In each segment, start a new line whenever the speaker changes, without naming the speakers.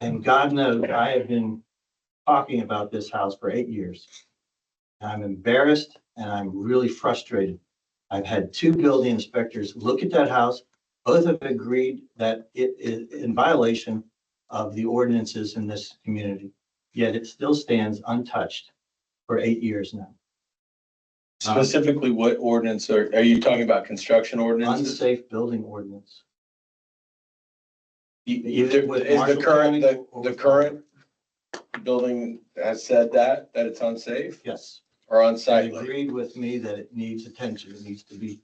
And God knows I have been talking about this house for eight years. And I'm embarrassed and I'm really frustrated. I've had two building inspectors look at that house. Both have agreed that it is in violation of the ordinances in this community. Yet it still stands untouched for eight years now.
Specifically, what ordinance are, are you talking about construction ordinances?
Unsafe building ordinance.
E- Either,
With
is the
Marshall
current, the,
County or
the
with-
current building has said that, that it's unsafe
Yes.
or
They
unsightly?
agreed with me that it needs attention. It needs to be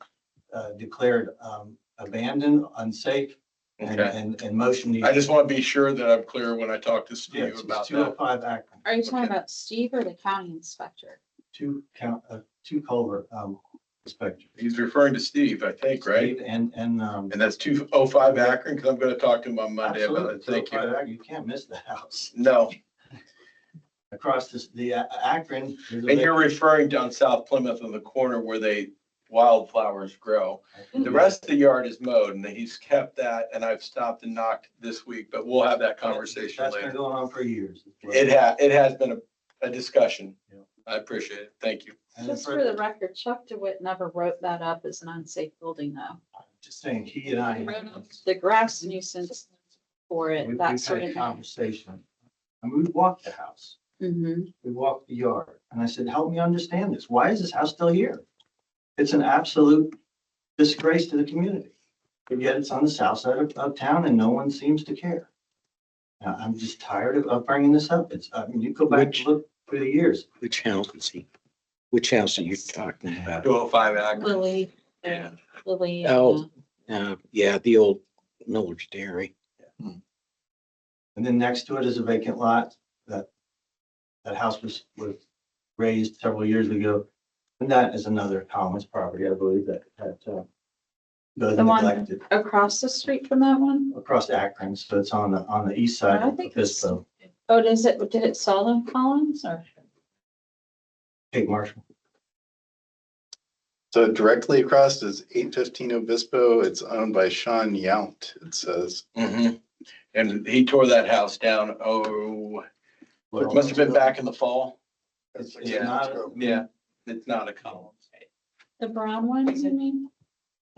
uh, declared um, abandoned, unsafe, and,
Okay,
and, and motion needs.
I just want to be sure that I'm clear when I talk to Steve about
Two oh
that.
five Akron,
Are you talking
Okay.
about Steve or the county inspector?
two count, uh, two culvert um, inspector.
He's referring to Steve, I think, right?
Steve And, and. um,
And that's two oh five Akron, because I'm going to talk to him on Monday about
absolutely,
it. Thank
205
you.
Akron. You can't miss the house.
No,
Across this, the A- Akron. there's a
and you're referring down South Plymouth in the corner where they wildflowers grow.
big-
The rest of the yard is mowed and he's kept that and I've stopped and knocked this week, but we'll have that conversation
That's been
later.
going on for years.
It ha, it has been a, a discussion.
Yeah.
I appreciate it. Thank you.
And
Just
for-
for the record, Chuck DeWitt never wrote that up as an unsafe building though.
Just saying, he and I.
The grass nuisance for
we-
it,
we've
that
had
sort
a
of thing.
Conversation. And we walked the house.
Mhm.
we walked the yard, and I said, help me understand this. Why is this house still here? It's an absolute disgrace to the community. But yet it's on the south side of, of town and no one seems to care. Now, I'm just tired of, of bringing this up. It's, I mean, you go back
Which-
and look through the years.
Which house is he? Which house are you talking about?
Two oh five Akron.
Lily,
Yeah.
Lily.
Oh.
uh,
Uh, yeah, the old Miller's Dairy.
And then next to it is a vacant lot that, that house was, was raised several years ago. And that is another Collins property, I believe, that, that, uh, goes
The one-
neglected
Across the street from that one?
across Akron, so it's on the, on the east side
I
of
think it's-
Pisco.
Oh, does it, did it sell in Collins or?
Kate Marshall.
So directly across is eight fifteen Obispo. It's owned by Sean Yount, it says.
Mhm. And he tore that house down, oh, it must have been back in the fall.
It's it's
Yeah.
not,
Yeah, it's not a column.
The brown one, you mean?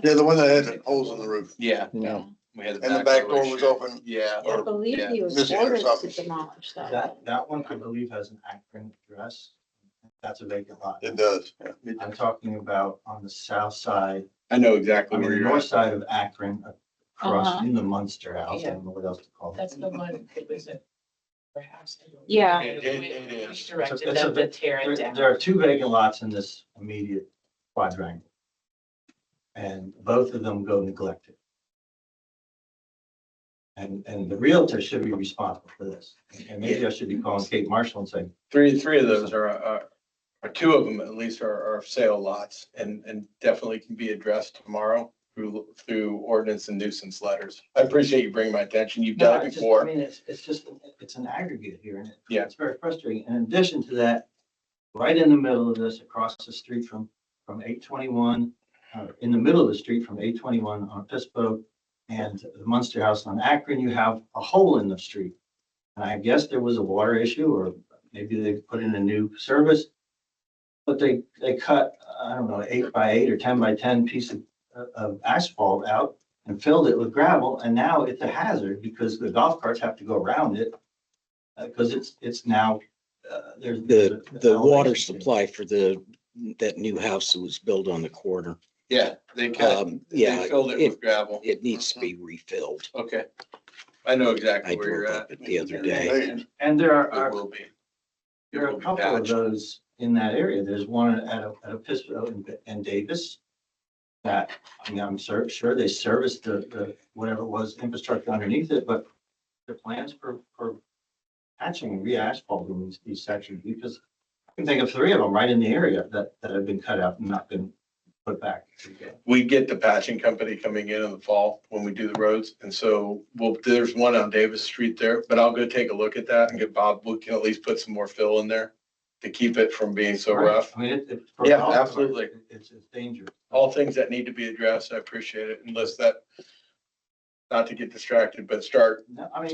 Yeah, the one that had holes in the roof.
Yeah.
Yeah.
we had
And the back door was
issue.
open.
Yeah.
I believe
yeah,
he was
Missy Harris
ordered to
office.
demolish that.
that,
one.
that one, I believe, has an Akron address. That's a vacant lot.
It does.
I'm talking about on the south side,
I know
I
exactly
mean,
where
the
you're
north
at.
side of Akron, across
Uh-huh.
in the Munster House, I don't know what else to call it.
That's the one that was it. Perhaps.
Yeah.
It- it- it is.
We directed them to tear
There
it down.
there are two vacant lots in this immediate quadrangle. And both of them go neglected. And, and the realtor should be responsible for this. And maybe I should be calling Kate Marshall and saying,
Three, three of those are, are, or two of them at least are, are sale lots and, and definitely can be addressed tomorrow through, through ordinance and nuisance letters. I appreciate you bringing my attention. You've
No,
done
I
it
just- I
before.
mean, it's, it's just, it's an aggregate here and it-
Yeah.
it's very frustrating. In addition to that, right in the middle of this, across the street from, from eight twenty-one, uh, in the middle of the street from eight twenty-one on Pispo and the Munster House on Akron, you have a hole in the street. And I guess there was a water issue or maybe they put in a new service. But they, they cut, I don't know, eight by eight or ten by ten piece of, of asphalt out and filled it with gravel, and now it's a hazard because the golf carts have to go around it. Uh, cause it's, it's now, uh, there's.
The, the water
elevation change.
supply for the, that new house that was built on the corner.
Yeah, they
Uh,
cut,
Um, yeah,
they filled it
it-
with gravel.
It needs to be refilled.
Okay. I know
I
exactly where
drove
you're
up
at.
it the other day.
Hey,
And there are,
It
are,
will be.
there are a couple of those in that area. There's one at, a- at Episcopal and- and Davis. That, I mean, I'm cer- sure they serviced the, the, whatever it was, infrastructure underneath it, but the plans for, for patching and re-asphalting these, these sections, because I can think of three of them right in the area that, that have been cut out and not been put back.
we get the patching company coming in in the fall when we do the roads. And so, well, there's one on Davis Street there, but I'll go take a look at that and get Bob, we can at least put some more fill in there to keep it from being so rough.
I mean, it, it. for
Yeah,
golf carts,
absolutely.
it- It's, it's dangerous.
All things that need to be addressed, I appreciate it, unless that, not to get distracted, but start
No, I mean,